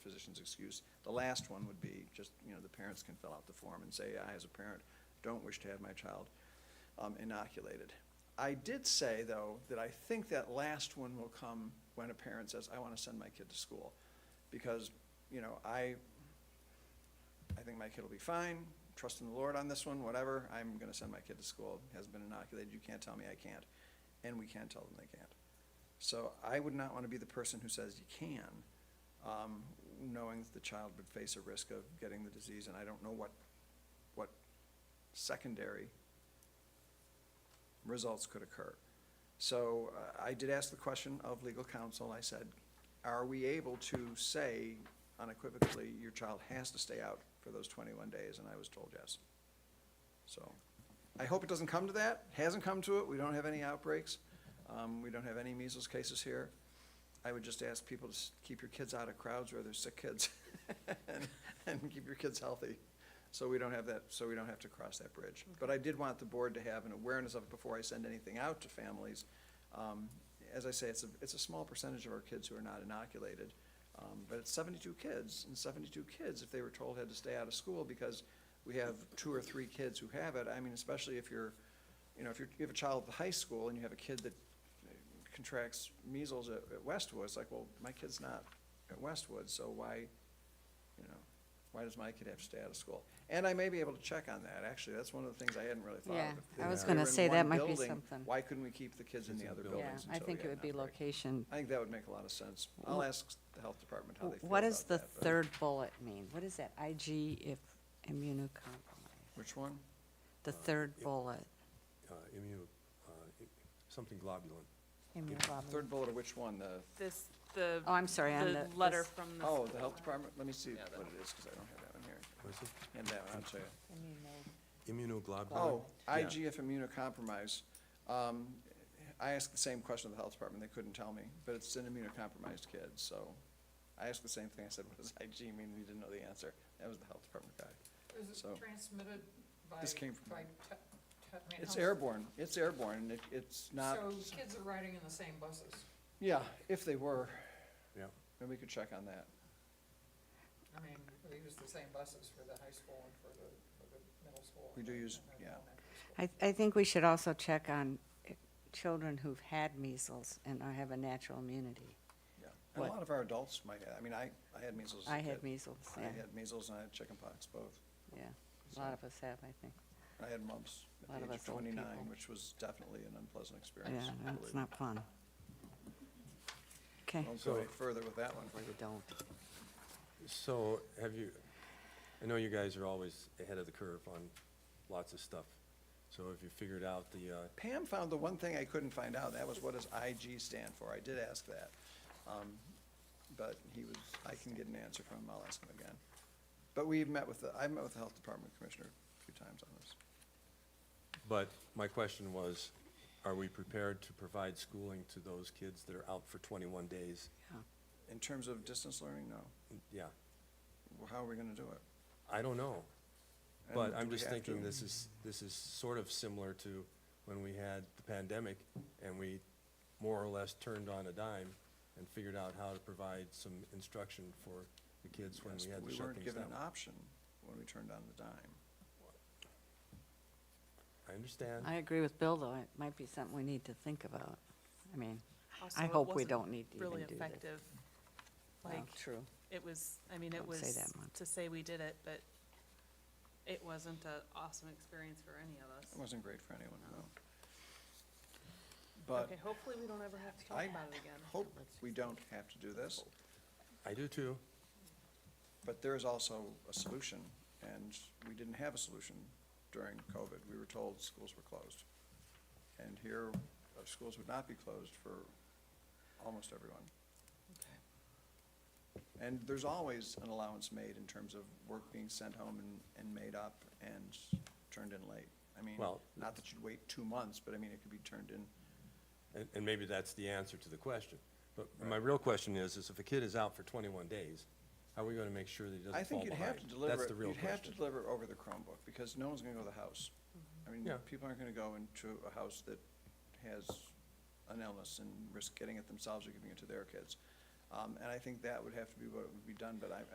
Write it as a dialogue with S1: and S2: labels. S1: physician's excuse. The last one would be just, you know, the parents can fill out the form and say, I, as a parent, don't wish to have my child um, inoculated. I did say, though, that I think that last one will come when a parent says, I want to send my kid to school. Because, you know, I, I think my kid will be fine, trust in the Lord on this one, whatever, I'm gonna send my kid to school, has been inoculated, you can't tell me I can't, and we can't tell them they can't. So I would not wanna be the person who says you can, um, knowing that the child would face a risk of getting the disease, and I don't know what, what secondary results could occur. So uh, I did ask the question of legal counsel. I said, are we able to say unequivocally, your child has to stay out for those 21 days? And I was told yes. So I hope it doesn't come to that. Hasn't come to it. We don't have any outbreaks. Um, We don't have any measles cases here. I would just ask people to s- keep your kids out of crowds where there's sick kids and- and keep your kids healthy. So we don't have that, so we don't have to cross that bridge. But I did want the board to have an awareness of it before I send anything out to families. Um, As I say, it's a, it's a small percentage of our kids who are not inoculated, um, but it's seventy-two kids. And seventy-two kids, if they were told had to stay out of school because we have two or three kids who have it, I mean, especially if you're, you know, if you're, you have a child at high school and you have a kid that contracts measles at, at Westwood, it's like, well, my kid's not at Westwood, so why, you know, why does my kid have to stay out of school? And I may be able to check on that, actually, that's one of the things I hadn't really thought of.
S2: Yeah,
S1: If they
S2: I was
S1: were
S2: gonna
S1: in
S2: say
S1: one
S2: that might be
S1: building,
S2: something.
S1: Why couldn't we keep the kids in the other
S2: Yeah,
S1: buildings
S2: I
S1: until we
S2: think it
S1: had
S2: would
S1: an
S2: be
S1: outbreak?
S2: location.
S1: I think that would make a lot of sense. I'll ask the health department how they feel
S2: What does
S1: about
S2: the
S1: that, but-
S2: third bullet mean? What is that, IG if immunocompromised?
S1: Which one?
S2: The third bullet,
S3: uh, immu, uh, i- something globulin.
S2: immunoglobulin.
S1: Third bullet of which one? The,
S4: This, the.
S2: Oh, I'm sorry, on
S4: The
S2: the-
S4: letter
S2: this-
S4: from the.
S1: oh, the health department? Let me see what it is, because I don't have that one here.
S3: What is it?
S1: Hand that one, I'll show you.
S3: Immunoglobulin.
S1: Oh,
S3: Yeah.
S1: IGF immunocompromised. Um, I asked the same question of the health department, they couldn't tell me, but it's an immunocompromised kid, so. I asked the same thing, I said, what does IG mean? We didn't know the answer. That was the health department guy.
S5: Is it
S1: So-
S5: transmitted by?
S1: This came from-
S5: by te- te- I mean,
S1: It's
S5: how-
S1: airborne, it's airborne, and it, it's not,
S5: So kids are riding in the same buses.
S1: yeah, if they were,
S3: Yeah,
S1: then we could check on that.
S5: I mean, we use the same buses for the high school and for the, for the middle school.
S1: We do
S5: and
S1: use-
S5: the
S1: yeah.
S5: elementary school.
S2: I, I think we should also check on eh, children who've had measles and are- have a natural immunity.
S1: Yeah. And a
S2: What?
S1: lot of our adults might, I mean, I, I had measles as a
S2: I had
S1: kid.
S2: measles,
S1: I
S2: yeah,
S1: had measles and I had chickenpox, both.
S2: yeah. A lot of us have, I think.
S1: I had mumps
S2: Lot
S1: at the
S2: of
S1: age of
S2: us old people.
S1: twenty-nine, which was definitely an unpleasant experience.
S2: Yeah,
S1: I
S2: that's
S1: believe.
S2: not fun. Okay,
S1: Don't go
S3: So-
S1: any further with that one.
S2: we don't.
S3: so have you, I know you guys are always ahead of the curve on lots of stuff. So have you figured out the, uh,
S1: Pam found the one thing I couldn't find out, that was what does IG stand for? I did ask that. Um, But he was, I can get an answer from him, I'll ask him again. But we've met with the, I've met with the Health Department Commissioner a few times on this.
S3: but my question was, are we prepared to provide schooling to those kids that are out for 21 days?
S1: In terms of distance learning, no.
S3: Yeah,
S1: Well, How are we gonna do it?
S3: I don't know. But
S1: And
S3: I'm
S1: do we
S3: just
S1: have
S3: thinking
S1: to?
S3: this is, this is sort of similar to when we had the pandemic and we more or less turned on a dime and figured out how to provide some instruction for the kids when
S1: Yes,
S3: we had
S1: but
S3: to
S1: We
S3: shut
S1: weren't
S3: things
S1: given an
S3: down.
S1: option when we turned on the dime.
S3: I understand.
S2: I agree with Bill, though, it might be something we need to think about. I mean,
S4: Also,
S2: I
S4: it
S2: hope we
S4: wasn't
S2: don't need to even do
S4: Really
S2: this.
S4: effective.
S2: Well,
S4: Like,
S2: True.
S4: it was, I mean, it
S2: Don't say
S4: was,
S2: that much.
S4: to say we did it, but it wasn't an awesome experience for any of us.
S1: It wasn't great for anyone, no. But
S4: Okay, hopefully we don't ever have to talk
S1: I
S4: about it again.
S1: hope we don't have to do this.
S3: I do too.
S1: But there is also a solution, and we didn't have a solution during COVID. We were told schools were closed. And here, our schools would not be closed for almost everyone. And there's always an allowance made in terms of work being sent home and, and made up and turned in late. I mean,
S3: Well-
S1: not that you'd wait two months, but I mean, it could be turned in.
S3: And, and maybe that's the answer to the question. But my real question is, is if a kid is out for twenty-one days, how are we gonna make sure that he
S1: I
S3: doesn't fall
S1: think you'd
S3: behind?
S1: have to deliver,
S3: That's
S1: it-
S3: the real
S1: you'd have to
S3: question.
S1: deliver it over the Chromebook, because no one's gonna go to the house. I mean,
S3: Yeah.
S1: people aren't gonna go into a house that has an illness and risk getting it themselves or giving it to their kids. Um, and I think that would have to be what would be done, but I,